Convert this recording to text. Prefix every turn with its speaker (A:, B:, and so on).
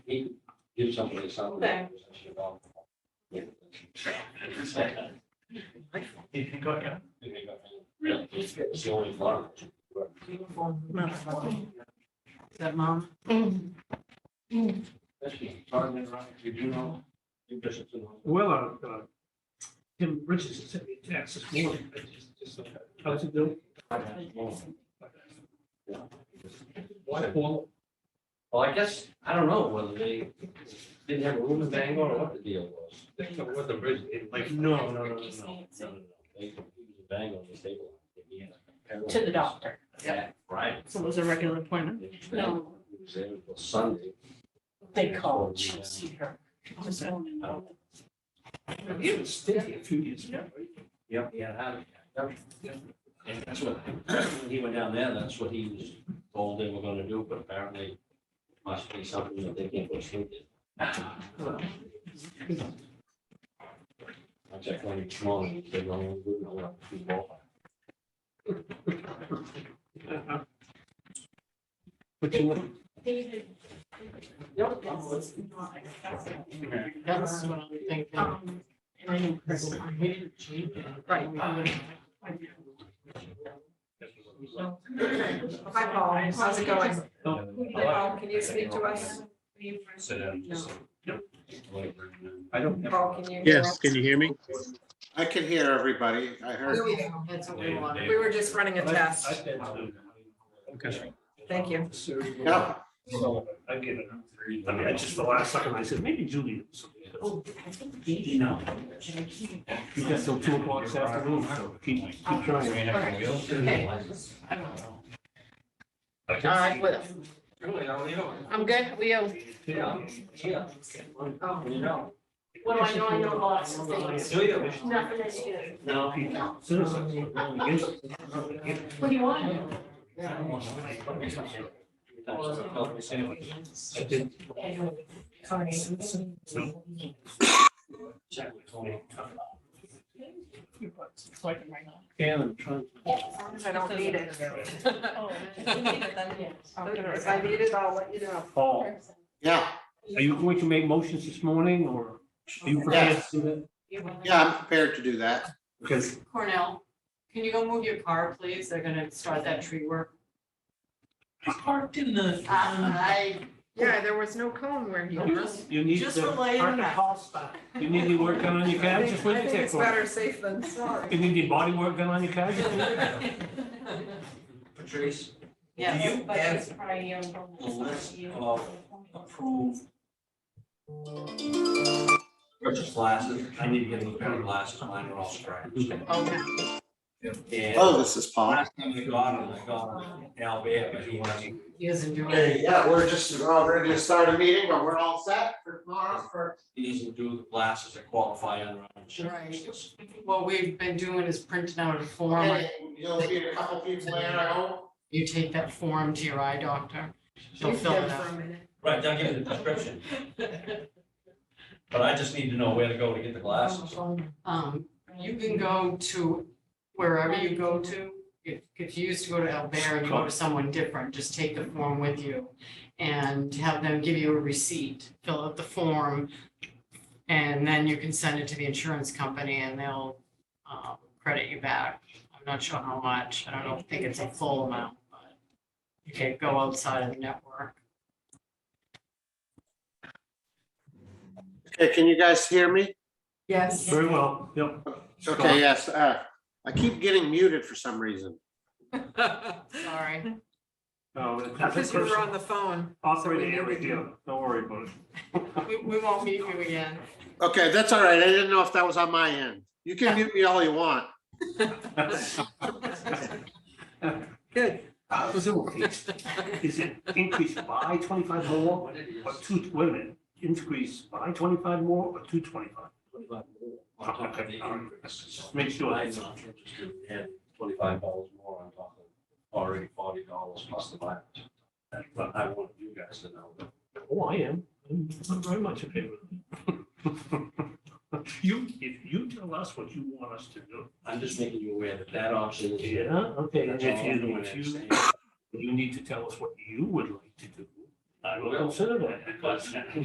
A: he could give somebody something.
B: Okay.
C: You can go, yeah.
A: Really? It's the only one.
D: Is that mom?
A: Especially starting it right, you do know. you just-
C: Well, uh, uh, Tim Richardson sent me a text this morning. I just- just, uh, How's it doing? Why, Paul?
A: Well, I guess, I don't know whether they didn't have a room in Bangor or what the deal was.
C: That's not what the bridge, it like.
A: No, no, no, no, no. no, no. They, he was in Bangor, they stabilized. him. He had a-
D: To the doctor.
A: Yeah, right.
D: So it was a regular appointment.
B: No.
A: He was there until Sunday.
D: They called, she would see her.
C: It was stinky a few years ago.
A: Yep, he had had it. Yep. And that's what, when he went down there, that's what he was told they were gonna do, but apparently must be something that they can't push through. I checked on each morning, they don't, wouldn't allow people.
C: Uh-huh. But you, went-
B: David.
A: Yep.
B: This is not acceptable.
D: That's what I'm thinking.
B: Um,
D: And I knew Chris, I hated Jane.
B: Right. Hi, Paul. How's it going? Paul, can you speak to us?
A: Sit down. just-
C: I don't.
B: Paul, can you? hear
E: Yes,
B: us?
E: can you hear me?
F: I can hear everybody. I heard,
B: There we go. That's what we wanted. We were just running a test.
C: Okay.
B: Thank you.
F: yeah,
C: I get it. I mean, it's just the last second, I said, maybe Julie.
D: Oh, I think Katie, no.
C: You got till two o'clock this afternoon, so keep, keep trying.
D: Okay. I don't know. All right, well,
A: Really, how are you doing?
D: I'm good. How are you?
A: Yeah, yeah.
B: Oh.
A: You know.
B: What do I know? I know lots of things.
A: Do you?
B: Nothing that's good.
C: Now, people, citizens, are going against it.
B: What do you want?
C: I did.
B: Sorry.
C: And I'm trying.
B: As long as I don't need it. Oh,
C: Oh,
B: If I
D: Yes.
B: need it, I'll let you know.
C: Paul, are
F: yeah,
C: you going to make motions this morning or are you prepared to do that?
F: yeah, I'm prepared to do that.
C: Because
D: Cornell, can you go move your car, please? They're gonna start that tree work.
C: I parked in the.
D: I.
B: Yeah, there was no cone where he was.
C: You need
D: Just
C: to
D: relaying
C: park the
D: that.
C: call spot. You need to work on your car, just wait
B: I
C: a
B: think it's
C: tick.
B: better safe than sorry.
C: You need your body work done on your car? just wait.
A: Patrice,
D: Yes.
A: you have
B: probably um,
A: a list of approved purchase glasses. I need to get a new pair of glasses. Mine are all scratched.
D: Okay.
A: And
F: Oh, this is Paul.
A: last time I got them, I got them. Albert, but he wasn't.
D: He isn't doing it.
F: Hey, yeah, we're just about ready to start a meeting, but we're all set for tomorrow for.
A: He doesn't do the glasses that qualify under. our insurance.
D: What we've been doing is printing out a form.
F: Hey, You'll be a couple people there, I hope.
D: You take that form to your eye doctor. She'll
B: She's
D: fill
B: there
D: it
B: for
D: out.
B: a minute.
A: Right, they'll give you the prescription, but I just need to know where to go to get the glasses.
D: Um, you can go to wherever you go to. If, if you used to go to Albert and you go to someone different, just take the form with you and have them give you a receipt, fill out the form. And then you can send it to the insurance company and they'll, um, credit you back. I'm not sure how much. I don't know, I think it's a full amount, but you can't go outside of the network.
F: Okay, can you guys hear me?
B: Yes.
C: Very well, yep.
F: Okay, yes, uh, I keep getting muted for some reason.
D: Sorry.
C: Uh, that's a
B: Because we were
C: person-
B: on the phone.
C: Operating area deal, don't worry about it.
D: We, we won't meet you again.
F: Okay, that's all right. I didn't know if that was on my end. You can mute me all you want.
B: Good.
C: Uh, So, Is it increase by twenty-five more, or two, wait a minute, increase by twenty-five more or two twenty-five?
A: On top of the increase.
C: Make sure.
A: I'm not interested in adding twenty-five dollars more on top of already forty dollars plus the mileage. That's what I want you guys to know.
C: Oh, I am, I'm I'm very much in favor of it. You, if you tell us what you want us to do.
A: I'm just making you aware that that option is.
C: Okay, and
A: That's
C: if
A: all I'm
C: you,
A: doing,
C: if
A: I'm
C: you,
A: saying.
C: you need to tell us what you would like to do, I will consider that, because